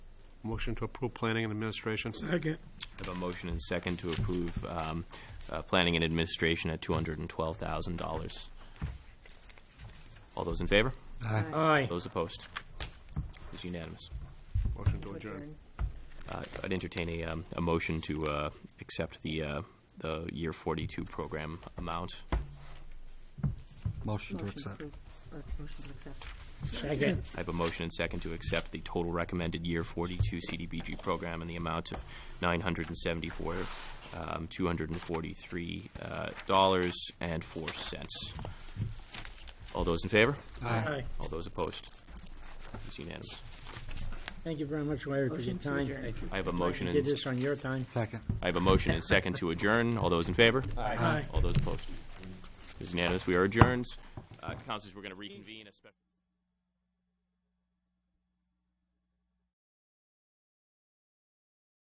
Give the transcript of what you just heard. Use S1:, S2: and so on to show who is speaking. S1: Motion to approve planning and administration.
S2: Second.
S3: I have a motion and second to approve um, uh, planning and administration at $212,000. All those in favor?
S2: Aye.
S3: Those opposed? It's unanimous.
S1: Motion to adjourn.
S3: Uh, I'd entertain a, um, a motion to uh, accept the, uh, the year 42 program amount.
S4: Motion to
S5: Motion
S4: accept.
S5: approve. Uh, Motion to accept.
S2: Second.
S3: I have a motion and second to accept the total recommended year 42 CDBG program in the amount of 974, um, 243 uh, dollars and four cents. All those in favor?
S2: Aye.
S3: All those opposed? It's unanimous.
S2: Thank you very much, Larry, for your
S5: Motion to
S2: time.
S5: adjourn.
S3: I have a
S2: You
S3: motion
S2: did
S3: and,
S2: this on your time.
S4: Second.
S3: I have a motion and second to adjourn. All those in favor?
S2: Aye.
S3: All those opposed? It's unanimous. We are adjourned. Uh, Councilors, we're going to reconvene a special.